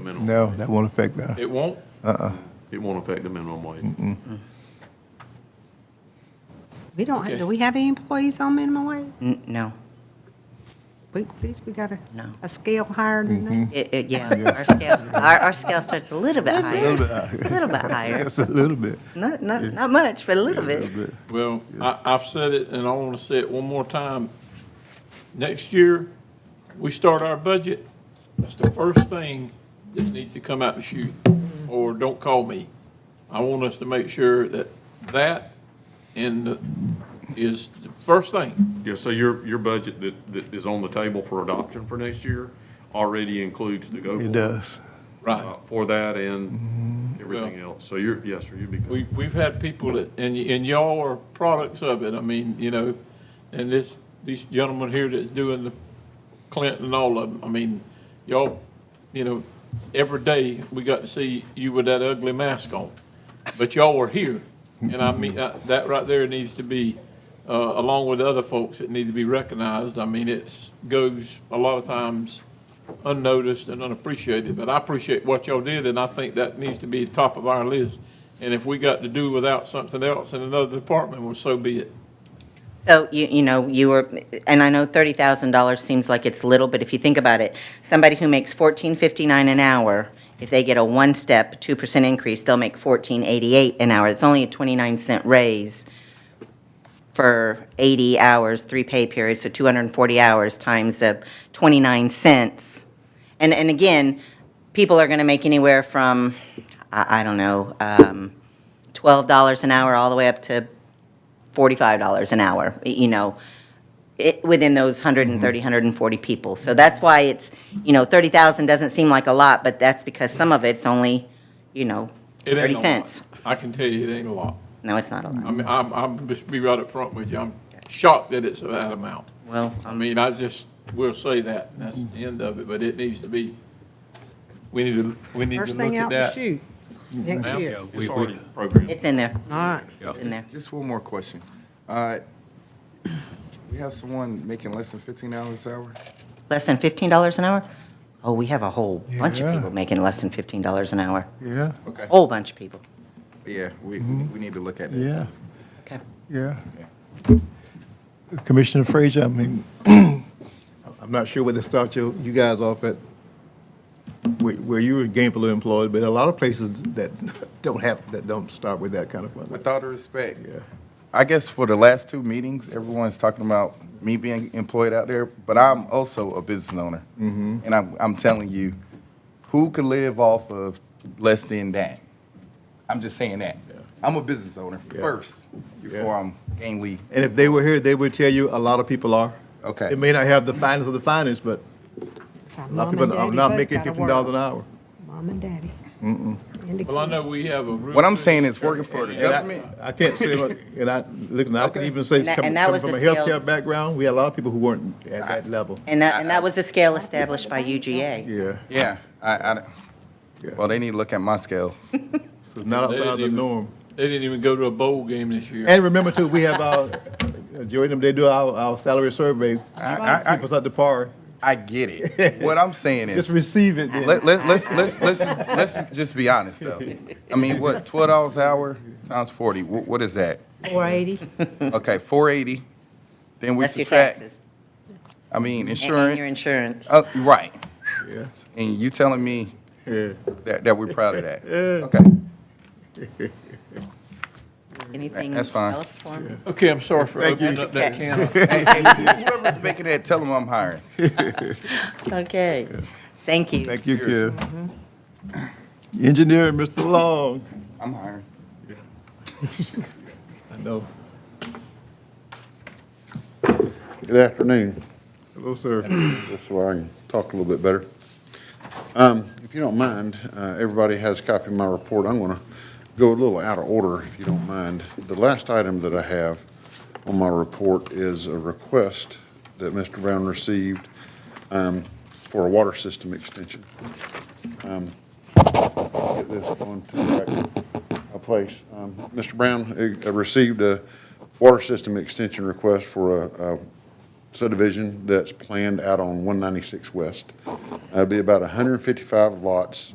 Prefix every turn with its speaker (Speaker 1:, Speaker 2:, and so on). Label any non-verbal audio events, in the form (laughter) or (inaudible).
Speaker 1: minimum.
Speaker 2: No, that won't affect that.
Speaker 1: It won't? Uh-uh. It won't affect the minimum wage.
Speaker 3: We don't,
Speaker 1: Okay.
Speaker 3: do we have any employees on minimum wage?
Speaker 4: N- No,
Speaker 3: We, at least we got a,
Speaker 4: No.
Speaker 3: a scale higher than
Speaker 1: Mm-hmm.
Speaker 3: that.
Speaker 4: It- it-
Speaker 2: (laughs)
Speaker 4: yeah, our scale, our, our scale starts a little bit higher.
Speaker 2: little bit higher.
Speaker 4: A little bit higher.
Speaker 2: Just a little bit.
Speaker 4: Not, not, not much, but a little
Speaker 2: Yeah,
Speaker 4: bit.
Speaker 1: Well, I, I've said it, and I want to say it one more time. Next year, we start our budget, that's the first thing that needs to come out and shoot, or don't call me. I want us to make sure that that and the- is the first thing.
Speaker 5: Yeah, so your, your budget that, that is on the table for adoption for next year already includes the go.
Speaker 2: It does. Mm-hmm.
Speaker 1: Right.
Speaker 5: For that and everything else. So you're, yes, sir, you'd be.
Speaker 1: We, we've had people that, and, y- and y'all are products of it, I mean, you know, and this, these gentlemen here that's doing the Clinton and all of them, I mean, y'all, you know, every day we got to see you with that ugly mask on, but y'all are here. And I mean, uh, that right there needs to be, uh, along with other folks that need to be recognized, I mean, it's, goes a lot of times unnoticed and unappreciated, but I appreciate what y'all did, and I think that needs to be top of our list. And if we got to do without something else in another department, well, so be it.
Speaker 4: So, you, you know, you were, and I know thirty thousand dollars seems like it's little, but if you think about it, somebody who makes fourteen fifty-nine an hour, if they get a one-step, two percent increase, they'll make fourteen eighty-eight an hour. It's only a twenty-nine cent raise for eighty hours, three pay periods, so two hundred and forty hours times a twenty-nine cents. And, and again, people are gonna make anywhere from, I, I don't know, um, twelve dollars an hour all the way up to forty-five dollars an hour, y- you know, it, within those 130,
Speaker 1: Mm-hmm.
Speaker 4: 140 people. So that's why it's, you know, thirty thousand doesn't seem like a lot, but that's because some of it's only, you know,
Speaker 1: It ain't
Speaker 4: thirty
Speaker 1: a lot.
Speaker 4: cents.
Speaker 1: I can tell you it ain't a lot.
Speaker 4: No, it's not a
Speaker 1: I
Speaker 4: lot.
Speaker 1: mean, I'm, I'm just be right up front with you. I'm shocked that it's that amount.
Speaker 4: Well,
Speaker 1: I mean, I just will say that, and that's the end of it, but it needs to be, we need to, we need to
Speaker 3: First
Speaker 1: look
Speaker 3: thing
Speaker 1: at
Speaker 3: out the
Speaker 1: that.
Speaker 3: chute, next year. All
Speaker 5: It's already programmed.
Speaker 4: it's in there.
Speaker 3: right.
Speaker 4: It's in there.
Speaker 6: Just one more question. Uh, We have someone making less than 15 hours an hour?
Speaker 4: Less than fifteen dollars an hour? Oh, we have a whole bunch of
Speaker 2: Yeah.
Speaker 4: people making less than fifteen dollars an hour.
Speaker 2: Yeah,
Speaker 6: Okay.
Speaker 4: Whole bunch of people.
Speaker 6: Oh. Yeah, we, we need to look at that.
Speaker 2: Mm-hmm. yeah,
Speaker 4: Okay.
Speaker 2: yeah. Commissioner Frazier, I mean, I'm not sure whether to start you, you guys off at where, where you were gainfully employed, but a lot of places that (laughs) don't have, that don't start with that kind of
Speaker 6: With
Speaker 2: funding.
Speaker 6: all due respect.
Speaker 2: Yeah.
Speaker 6: I guess for the last two meetings, everyone's talking about me being employed out there, but I'm also a business owner.
Speaker 2: Mm-hmm.
Speaker 6: And I'm, I'm telling you, who could live off of less than that? I'm just saying that. I'm a business owner
Speaker 2: Yeah.
Speaker 6: first, before I'm gainly.
Speaker 2: And if they were here, they would tell you a lot of people are.
Speaker 6: Okay.
Speaker 2: It may not have the finest of the finest, but
Speaker 3: So
Speaker 2: a lot of
Speaker 3: mom and
Speaker 2: people are
Speaker 3: daddy
Speaker 2: not
Speaker 3: both
Speaker 2: making
Speaker 3: gotta
Speaker 2: fifteen dollars an
Speaker 3: work.
Speaker 2: hour.
Speaker 3: Mom and daddy. And the
Speaker 1: Well, I know
Speaker 3: kids.
Speaker 1: we have a. real
Speaker 6: What I'm
Speaker 1: good-
Speaker 6: saying is working for the
Speaker 2: And I-
Speaker 6: government.
Speaker 2: (laughs) I can't say, what- and I, look, and I can even say,
Speaker 4: And that-
Speaker 2: coming
Speaker 4: and that
Speaker 2: coming
Speaker 4: was
Speaker 2: from a
Speaker 4: the scale-
Speaker 2: healthcare background, we had a lot of people who weren't at that level.
Speaker 4: And that, and that was a scale established by UGA.
Speaker 2: Yeah,
Speaker 6: Yeah, I, I, don't-
Speaker 2: Yeah.
Speaker 6: well, they need to look at my scales.
Speaker 2: (laughs) so not
Speaker 1: They didn't
Speaker 2: outside the
Speaker 1: even-
Speaker 2: norm.
Speaker 1: They didn't even go to a bowl game this year.
Speaker 2: And remember too, we have our, uh, Joey, them, they do our, our salary survey, keep
Speaker 6: I, I, I,
Speaker 2: us up to par.
Speaker 6: I get it. What I'm saying
Speaker 2: Just
Speaker 6: is,
Speaker 2: receive it then.
Speaker 6: let, let, let's, let's, let's, let's just be honest though. I mean, what, twelve dollars an hour times forty, what, what is that?
Speaker 3: 480.
Speaker 6: Okay, four eighty, then we
Speaker 4: That's your
Speaker 6: subtract,
Speaker 4: taxes.
Speaker 6: I
Speaker 4: And-
Speaker 6: mean,
Speaker 4: and Your
Speaker 6: insurance.
Speaker 4: insurance.
Speaker 6: Uh, right,
Speaker 2: Yeah,
Speaker 6: and you telling me
Speaker 2: yeah.
Speaker 6: that, that we're proud of that? Okay, (laughs)
Speaker 4: Anything
Speaker 6: that's fine.
Speaker 4: else for me?
Speaker 1: Okay, I'm sorry for
Speaker 2: Thank you.
Speaker 1: opening up that
Speaker 4: Okay.
Speaker 1: can. of-
Speaker 6: whoever's making that, tell them I'm hiring.
Speaker 4: (laughs) Okay. Thank you.
Speaker 2: Thank you, Kim. Mm-hmm. Engineer, Mr. Long.
Speaker 6: I'm hiring.
Speaker 2: I know.
Speaker 7: Good afternoon.
Speaker 2: Hello, sir.
Speaker 7: This is where I can talk a little bit better. Um, If you don't mind, uh, everybody has a copy of my report. I'm going to go a little out of order, if you don't mind. The last item that I have on my report is a request that Mr. Brown received um, for a water system extension. get this on to the right place. Um, Mr. Brown uh, uh, received a water system extension request for a a subdivision that's planned out on 196 West. That'd be about 155 lots